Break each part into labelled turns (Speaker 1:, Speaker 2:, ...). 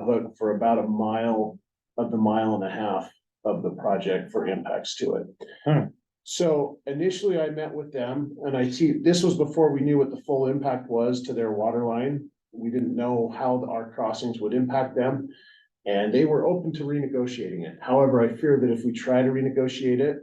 Speaker 1: outlook for about a mile of the mile and a half of the project for impacts to
Speaker 2: Hmm.
Speaker 1: it. So initially I met with them and I see, this was before we knew what the full impact was to their water line. We didn't know how our crossings would impact them. And they were open to renegotiating it. However, I fear that if we try to renegotiate it,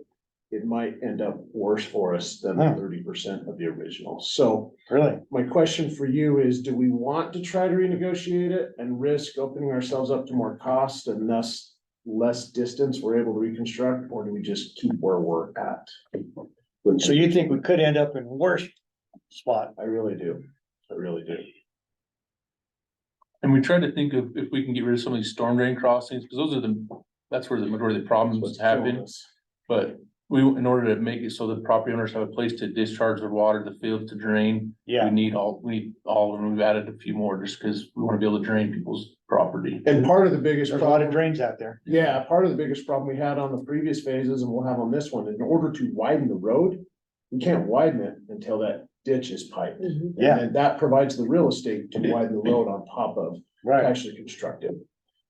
Speaker 1: it might end up worse for us than
Speaker 2: Hmm.
Speaker 1: thirty percent of the original. So
Speaker 2: Really?
Speaker 1: my question for you is, do we want to try to renegotiate it and risk opening ourselves up to more cost and thus less distance we're able to reconstruct, or do we just keep where we're at?
Speaker 2: So you think we could end up in worse spot?
Speaker 1: I really do. I really do.
Speaker 3: And we try to think of if we can get rid of some of these storm drain crossings, because those are the, that's where the majority of the problems
Speaker 1: What's killing
Speaker 3: happen.
Speaker 1: us.
Speaker 3: But we, in order to make it so that property owners have a place to discharge their water, the fields to drain. We
Speaker 2: Yeah,
Speaker 3: need all, we need all, and we've added a few more just because we want to be able to drain people's property.
Speaker 1: And part of the biggest
Speaker 2: there's a lot of
Speaker 1: problem,
Speaker 2: drains out there.
Speaker 1: yeah, part of the biggest problem we had on the previous phases and we'll have on this one, in order to widen the road, we can't widen it until that ditch is piped.
Speaker 2: Yeah.
Speaker 1: And that provides the real estate to widen the road on top of.
Speaker 2: Right.
Speaker 1: actually constructed.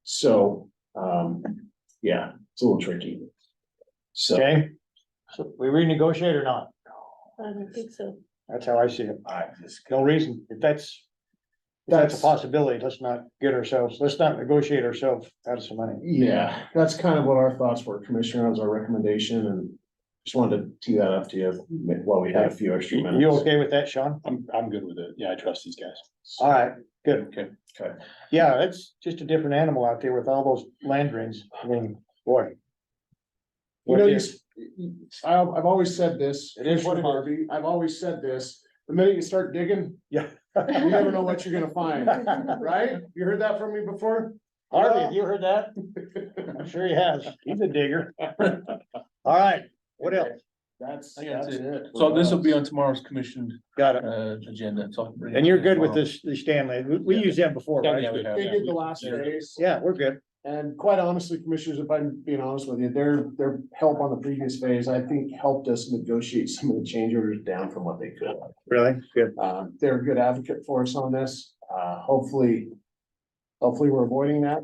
Speaker 1: So, um, yeah, it's a little tricky. So
Speaker 2: Okay. So we renegotiate or not?
Speaker 4: I don't think so.
Speaker 2: That's how I see it.
Speaker 1: I,
Speaker 2: No reason. If that's, if that's a possibility, let's not get ourselves, let's not negotiate ourselves out of some money.
Speaker 1: yeah, that's kind of what our thoughts were, Commissioner, that was our recommendation and just wanted to tee that up to you while we had a few extra
Speaker 2: You
Speaker 1: minutes.
Speaker 2: okay with that, Sean?
Speaker 5: I'm, I'm good with it. Yeah, I trust these guys.
Speaker 2: All right, good.
Speaker 3: Okay.
Speaker 1: Okay.
Speaker 2: Yeah, it's just a different animal out there with all those land drains. I mean, boy.
Speaker 1: You know,
Speaker 2: What
Speaker 1: you,
Speaker 2: is-
Speaker 1: I've, I've always said this,
Speaker 2: It is what it is.
Speaker 1: Harvey, I've always said this, the minute you start digging, you never know what you're gonna find, right? You heard that from me before?
Speaker 2: Harvey, have you heard that? I'm sure he has. He's a digger. All right, what else?
Speaker 1: That's,
Speaker 3: I think that's
Speaker 1: that's it.
Speaker 3: So this will be
Speaker 1: for us.
Speaker 3: on tomorrow's commission,
Speaker 2: Got it.
Speaker 3: uh, agenda. So I'll bring it
Speaker 2: And you're
Speaker 3: up
Speaker 2: good with
Speaker 3: tomorrow.
Speaker 2: this, the Stanley. We, we used them before,
Speaker 3: Yeah, yeah, we
Speaker 2: right?
Speaker 3: have,
Speaker 1: They
Speaker 3: yeah.
Speaker 1: did the last phase.
Speaker 2: Yeah, we're good.
Speaker 1: And quite honestly, commissioners, if I'm being honest with you, their, their help on the previous phase, I think helped us negotiate some of the change orders down from what they could.
Speaker 2: Really? Good.
Speaker 1: Uh, they're a good advocate for us on this. Uh, hopefully, hopefully we're avoiding that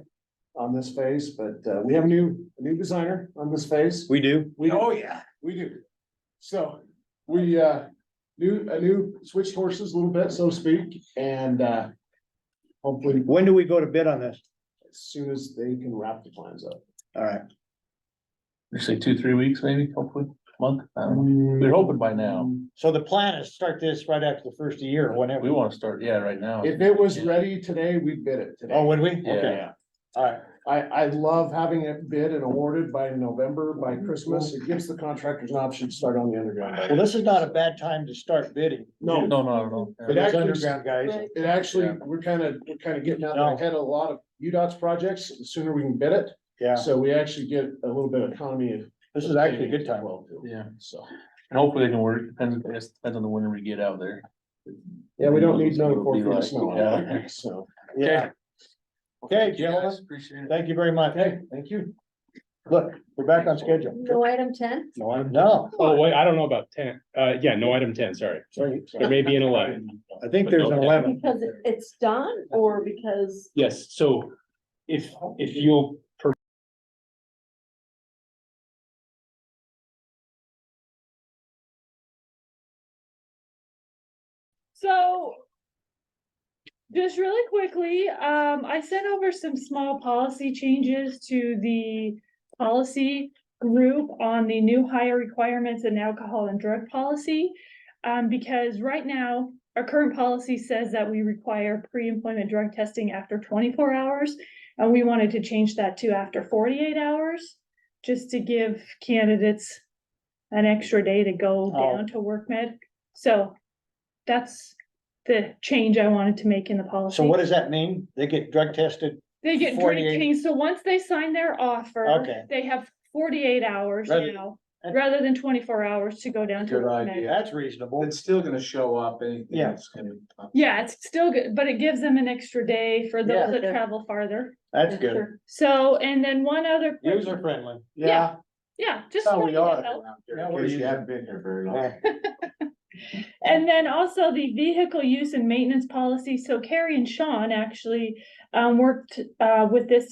Speaker 1: on this phase, but, uh, we have a new, a new designer on this phase.
Speaker 2: We do?
Speaker 1: We do.
Speaker 2: yeah.
Speaker 1: Oh, We do. So we uh new, a new switched horses a little bit, so to speak, and uh hopefully
Speaker 2: When do we go to bid on this?
Speaker 1: as soon as they can wrap the plans up.
Speaker 2: All right.
Speaker 3: You Say two, three weeks maybe, hopefully, month. I don't know. We're hoping by now.
Speaker 2: So the plan is start this right after the first of the year,
Speaker 3: We
Speaker 2: whenever.
Speaker 3: want to start, yeah, right now.
Speaker 1: If it was ready today, we'd bid it
Speaker 2: Oh,
Speaker 1: today.
Speaker 2: would we?
Speaker 3: Yeah.
Speaker 2: Okay. All right.
Speaker 1: I, I love having it bid and awarded by November, by Christmas. It gives the contractors an option to start on the
Speaker 2: Well,
Speaker 1: underground.
Speaker 2: this is not a bad time to start bidding.
Speaker 3: No,
Speaker 1: No,
Speaker 3: no, no, no.
Speaker 2: For those underground guys.
Speaker 4: Right.
Speaker 1: it actually, we're kind of, we're kind of getting out
Speaker 2: No.
Speaker 1: ahead of a lot of UDOT's projects. The sooner we can bid it.
Speaker 2: Yeah,
Speaker 1: So we actually get a little bit of economy. of-
Speaker 2: this is actually a good time.
Speaker 1: Well, too.
Speaker 3: Yeah.
Speaker 1: So,
Speaker 3: And hopefully they can work, depends, I guess, depends on the winter we get out there.
Speaker 1: yeah, we don't need
Speaker 3: It'll
Speaker 1: another
Speaker 3: be
Speaker 1: four feet
Speaker 3: like-
Speaker 1: of snow.
Speaker 3: yeah.
Speaker 1: So,
Speaker 2: Yeah. Okay, gentlemen.
Speaker 3: Yes, Appreciate it.
Speaker 2: Thank you very much.
Speaker 1: okay, thank you.
Speaker 2: Look, we're back on schedule.
Speaker 4: No item ten?
Speaker 2: No, I'm, no,
Speaker 5: Oh, wait, I don't know about ten. Uh, yeah, no, item ten, sorry.
Speaker 2: sorry.
Speaker 5: There may be an eleven.
Speaker 2: I think there's an eleven.
Speaker 4: Because it- it's done or because?
Speaker 5: Yes, so if, if you'll
Speaker 6: So. Just really quickly, um, I sent over some small policy changes to the policy group on the new higher requirements in alcohol and drug policy. Um, because right now, our current policy says that we require pre-employment drug testing after twenty-four hours. And we wanted to change that to after forty-eight hours, just to give candidates an extra day to go
Speaker 2: Oh.
Speaker 6: down to work med. So that's the change I wanted to make in the policy.
Speaker 2: So what does that mean? They get drug tested?
Speaker 6: They get
Speaker 2: 48
Speaker 6: drinking, so once they sign their offer,
Speaker 2: Okay.
Speaker 6: they have forty-eight hours
Speaker 2: Rather-
Speaker 6: now,
Speaker 2: That-
Speaker 6: rather than twenty-four hours to go down to.
Speaker 7: Good
Speaker 6: work
Speaker 7: idea.
Speaker 6: night.
Speaker 2: That's reasonable.
Speaker 7: It's still gonna show up, anything
Speaker 2: Yeah.
Speaker 7: that's gonna.
Speaker 6: Yeah, it's still good, but it gives them an extra day for
Speaker 2: Yeah.
Speaker 6: those that travel farther.
Speaker 2: That's good.
Speaker 6: So, and then one other. quick-
Speaker 2: User friendly.
Speaker 6: Yeah. Yeah, just.
Speaker 7: That's how we
Speaker 6: wanted to
Speaker 7: are
Speaker 6: help.
Speaker 7: around here,
Speaker 2: Yeah,
Speaker 7: in
Speaker 2: we're
Speaker 7: case you
Speaker 2: using-
Speaker 7: haven't been here very long.
Speaker 2: Yeah.
Speaker 6: And then also the vehicle use and maintenance policy. So Carrie and Sean actually um worked uh with this